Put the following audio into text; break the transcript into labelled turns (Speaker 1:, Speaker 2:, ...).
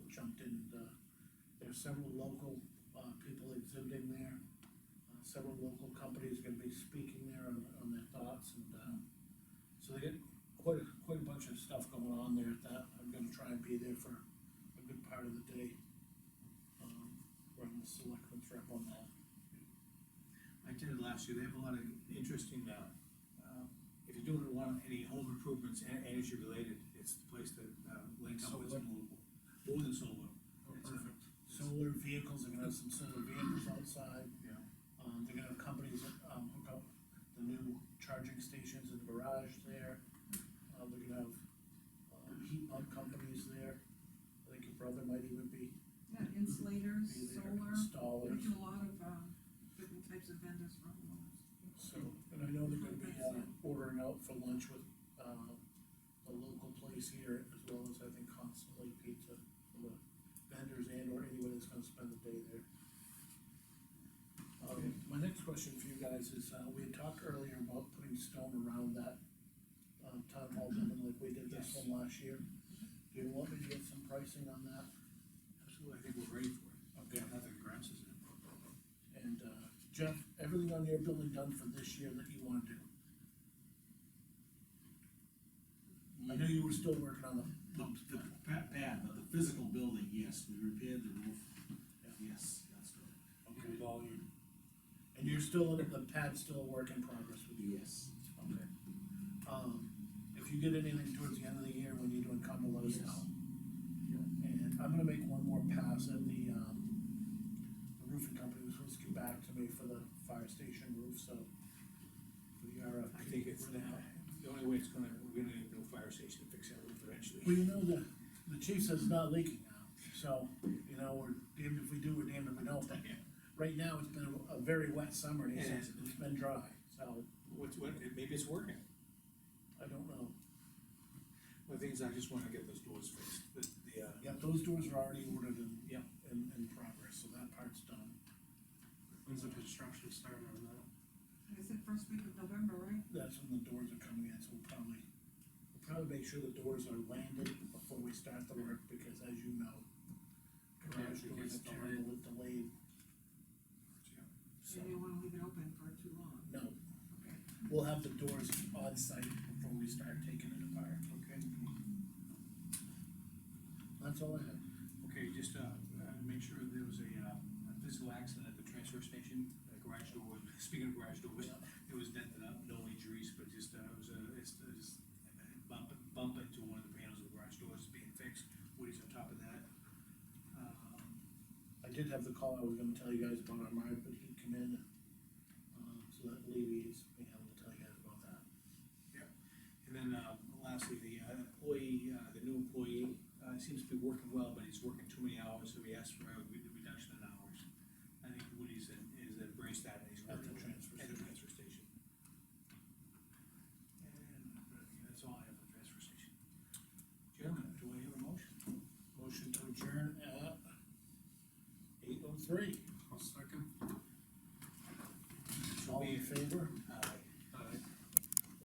Speaker 1: there's several local, uh, people exhibiting there. Uh, Several local companies gonna be speaking there on, on their thoughts and, um, so they get quite, a- quite a bunch of stuff going on there at that. I'm gonna try and be there for a good part of the day. Um, Run the selectmen's rep on that.
Speaker 2: I attended last year, they have a lot of interesting, uh, uh, if you're doing one, any home improvements, en- energy related, it's the place to, uh, link up with.
Speaker 1: Solar.
Speaker 2: More than solar. It's, uh,
Speaker 1: Solar vehicles, they're gonna have some solar vehicles outside.
Speaker 2: Yeah.
Speaker 1: Um, they're gonna have companies, that, um, hook up the new charging stations in the garage there. Uh, they're gonna have, um, heat pump companies there. I think your brother might even be,
Speaker 3: Yeah, insulators,
Speaker 1: be there,
Speaker 3: solar,
Speaker 1: installers.
Speaker 3: there's a lot of, um, different types of vendors for homeowners.
Speaker 1: So, and I know they're gonna be, uh, ordering out for lunch with, uh, the local place here, as well as, I think, constantly pizza from the vendors and or anyone that's gonna spend the day there. Um, my next question for you guys is, uh, we had talked earlier about putting stone around that, um, town hall building like we did this
Speaker 2: Yes.
Speaker 1: one last year. Do you want me to get some pricing on that?
Speaker 2: Absolutely, I think we're ready for it.
Speaker 1: Okay.
Speaker 2: Now that the grass is in.
Speaker 1: And, uh, Jeff, everything on your building done for this year that you wanna do? I know you were still working on the,
Speaker 4: The, the pa- pad, but the physical building, yes, we repaired the roof. Yes, that's correct.
Speaker 1: okay, and you're still, in the pad's still a work in progress with you?
Speaker 4: Yes.
Speaker 1: Okay. Um, if you get anything towards the end of the year, we need to encumber let us
Speaker 4: Yes.
Speaker 1: know. And I'm gonna make one more pass at the, um, the roofing company was supposed to get back to me for the fire station roof, so. For the RFP.
Speaker 2: I think it's,
Speaker 1: we're now-
Speaker 2: the only way it's gonna, we're gonna need a new fire station to fix that roof eventually.
Speaker 1: Well, you know, the, the chief says it's not leaking now, so, you know, we're damned if we do, we're damned if we don't, but right now, it's been a very wet summer, and he says it's been dry, so,
Speaker 2: What's, what, maybe it's working.
Speaker 1: I don't know.
Speaker 2: The thing is, I just wanna get those doors fixed, the, the, uh,
Speaker 1: Yeah, those doors are already ordered and,
Speaker 2: Yeah.
Speaker 1: and, and progress, so that part's done.
Speaker 5: When's the construction starting on that?
Speaker 3: I said first week of November, right?
Speaker 1: That's when the doors are coming in, so we'll probably, we'll probably make sure the doors are landed before we start the work, because as you know, garage
Speaker 2: Yeah, it
Speaker 1: doors
Speaker 2: gets
Speaker 1: are terrible, delayed, so,
Speaker 3: And you wanna leave it open for too long,
Speaker 1: no,
Speaker 3: okay?
Speaker 1: we'll have the doors on site before we start taking it apart.
Speaker 2: okay?
Speaker 1: That's all I have.
Speaker 2: Okay, just, uh, uh, make sure there was a, uh, a physical accident at the transfer station, a garage door, was- speaking of garage doors, it was dented up, no injuries, but just, uh, it was a, it's, it's a bump, bump into one of the panels of the garage doors being fixed, Woody's on top of that. Um,
Speaker 1: I did have the call I was gonna tell you guys about on mine, but he came in, um, so that alleviates me having to tell you guys about that.
Speaker 2: And then, uh, lastly, the uh, employee, uh, the new employee, uh, seems to be working well, but he's working too many hours, so we asked for a re- reduction in hours. I think Woody's in- is embraced that, and he's
Speaker 1: At the
Speaker 2: working.
Speaker 1: transfer
Speaker 2: At the
Speaker 1: station.
Speaker 2: transfer station. And uh, that's all I have for the transfer station. Gentlemen, do I hear a motion?
Speaker 1: Motion to adjourn at eight oh three.
Speaker 5: I'll second.
Speaker 1: All in favor?
Speaker 5: Uh,